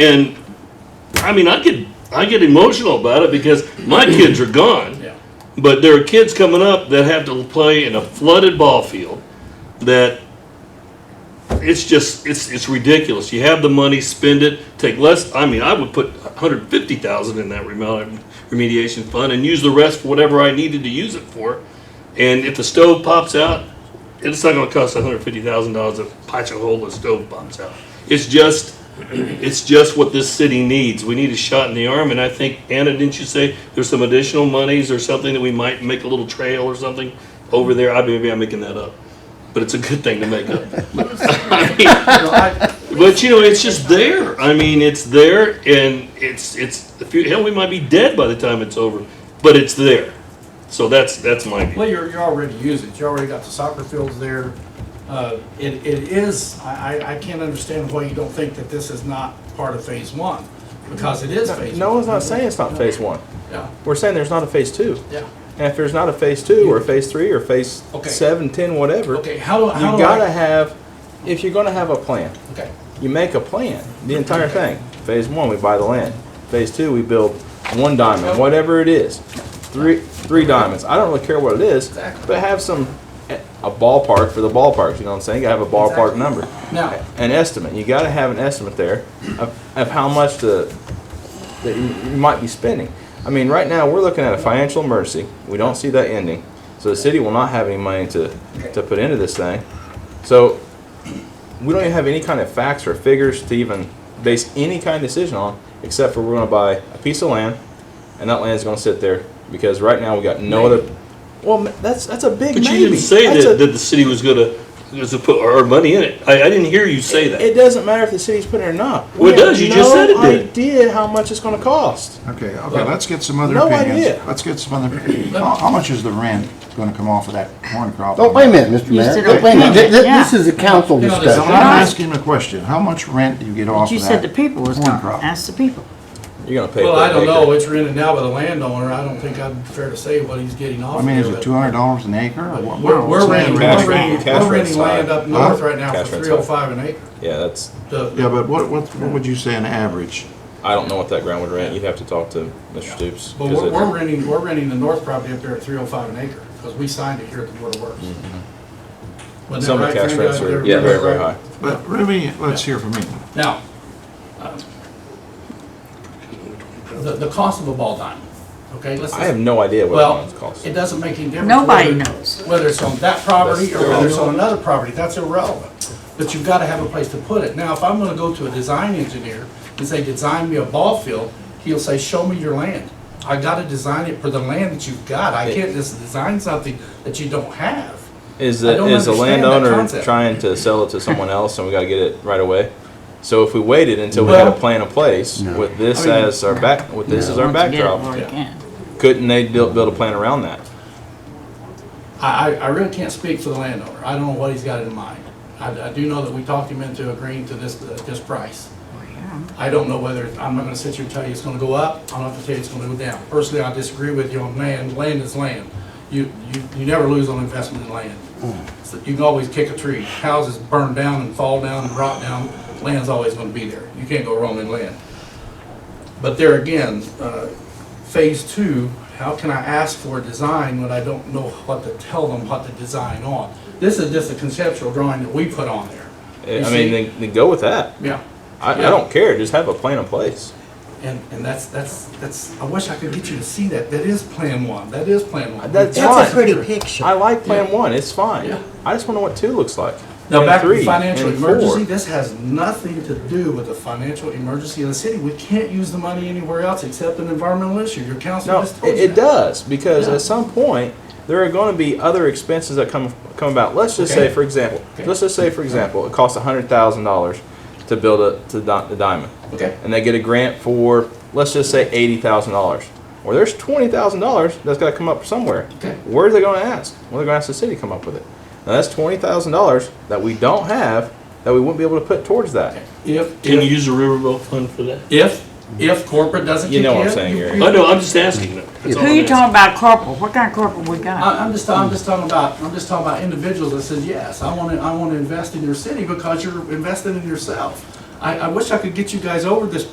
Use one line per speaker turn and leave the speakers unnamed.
And I mean, I get I get emotional about it because my kids are gone,
Yeah.
but there are kids coming up that have to play in a flooded ball field that it's just it's it's ridiculous. You have the money, spend it, take less. I mean, I would put 150,000 in that remel- remediation fund and use the rest for whatever I needed to use it for. And if the stove pops out, it's not going to cost $150,000 to patch a hole the stove pops out. It's just it's just what this city needs. We need a shot in the arm, and I think, Anna, didn't you say there's some additional monies or something that we might make a little trail or something over there? I maybe I'm making that up, but it's a good thing to make up. I mean,
No, I-
but you know, it's just there. I mean, it's there, and it's it's the few, hell, we might be dead by the time it's over, but it's there. So that's that's my view.
Well, you're, you're already using it, you already got the soccer fields there. Uh, It, it is, I, I I can't understand why you don't think that this is not part of phase one, because it is phase one.
No one's not saying it's not phase one.
Yeah,
We're saying there's not a phase two.
yeah.
And if there's not a phase two or a phase three or phase
Okay.
seven, ten, whatever,
Okay, how do,
you
how do
gotta
I?
have, if you're gonna have a plan,
Okay,
you make a plan, the entire thing. Phase one, we buy the land. Phase two, we build one diamond, whatever it is. Three, three diamonds. I don't really care what it is,
Exactly.
but have some, a ballpark for the ballparks, you know what I'm saying? You gotta have a ballpark
Exactly.
number.
now,
an estimate. You got to have an estimate there of, of how much the that you you might be spending. I mean, right now we're looking at a financial emergency. We don't see that ending, so the city will not have any money to to put into this thing. So we don't even have any kind of facts or figures to even base any kind of decision on, except for we're going to buy a piece of land, and that land is going to sit there because right now we got no other. Well, ma- that's that's a big
But
maybe.
you didn't say
That's
that,
a-
that the city was gonna was to put our money in it. I, I didn't hear you say that.
It doesn't matter if the city's putting it or not.
Well, it
We
does.
have
You just said it
No
did.
idea how much it's going to cost.
Okay, okay, let's get some other
No
opinions.
idea.
Let's get some other, how how much is the rent gonna come off of that corn crop?
Oh, wait a minute, Mr. Mayor.
said-
Wait a minute. Th- th-
Yeah.
This is a council
You know, there's a
I'm
discussion.
asking a question. How much rent do you get off
You
of
said the
that?
people was
corn
gonna
crop?
ask the people.
You're going to pay.
well,
per
I don't
acre.
know, it's rented now by the landowner, I don't think I'm fair to say what he's getting off
I
of
mean, is
there,
it
but
two hundred dollars an acre or what?
We're, we're
what's that
renting,
rent?
we're renting,
Cash
we're
rent
renting land
side.
up north
Huh?
right now
Cash
for
rent
three oh
side.
five an acre.
Yeah, that's.
The-
Yeah, but what, what, what would you say an average?
I don't know what that ground would rent. You'd have to talk to Mr. Stoops.
But
'cause
we're,
it-
we're renting, we're renting the north property up there at three oh five an acre, because we signed it here at the Board of Works. Wasn't that
some of
right,
the cash
Frank?
rents
They're-
are Mm-hmm. yeah,
they're
very very high.
right.
But really, let's hear from you.
Now, um, the, the cost of a ball diamond, okay, let's.
I have no idea what
Well,
it costs.
it doesn't make any difference.
Nobody
whether-
knows.
Whether it's on that property or
That's
whether it's on another property, that's irrelevant. But you've got to have a place to put it. Now, if I'm going to go to a design engineer and say, design me a ball field, he'll say, show me your land. I got to design it for the land that you've got. I can't just design something that you don't have.
Is
I
the
don't
is the
understand that
landowner
concept.
trying to sell it to someone else, and we got to get it right away? So if we waited until we had
Well-
a plan in place with this
I mean-
as our back, with this as our
Once you get it,
backdrop,
well, you
Yeah.
can.
couldn't they build, build a plan around that?
I, I, I really can't speak for the landowner. I don't know what he's got in mind. I, I do know that we talked him into agreeing to this, uh, this price. I don't know whether, I'm not gonna sit here and tell you it's gonna go up, I'm not gonna tell you it's gonna go down. Personally, I disagree with you on land, land is land. You, you, you never lose on investment in land. So You can always kick a tree, houses burn down and fall down and rot down, land's always gonna be there. You can't go wrong in land. But there again, uh, phase two, how can I ask for a design when I don't know what to tell them what to design on? This is just a conceptual drawing that we put on there. You
I
see?
mean, then, then go with that.
Yeah.
I,
Yeah.
I don't care. Just have a plan in place.
And, and that's, that's, that's, I wish I could get you to see that. That is Plan One. That is Plan One.
That's fine.
That's a pretty picture.
I like Plan One. It's fine.
Yeah.
I just want to know what two looks like.
Now,
and
back to
three,
the financial
and four.
emergency, this has nothing to do with the financial emergency of the city. We can't use the money anywhere else except an environmental issue. Your council
No,
just
it,
told you
it
that.
does because
Yeah.
at some point there are going to be other expenses that come come about. Let's just
Okay.
say, for example,
Okay.
let's just say, for example, it costs hundred thousand dollars to build a to di- the diamond,
Okay.
and they get a grant for let's just say eighty thousand dollars. Well, there's twenty thousand dollars that's got to come up somewhere.
Okay.
Where are they going to ask? Well, they're going to ask the city to come up with it. Now that's twenty thousand dollars that we don't have that we wouldn't be able to put towards that.
If,
Can you
if,
use a riverboat fund for that?
if, if corporate doesn't kick
You
in.
know what I'm saying, Gary.
I know, I'm just asking them. That's all
Who
I'm
you
asking.
talking about corporal? What kind of corporal we got?
I- I'm just, I'm just talking about, I'm just talking about individuals that says, yes, I want to, I want to invest in your city because you're investing in yourself. I, I wish I could get you guys over this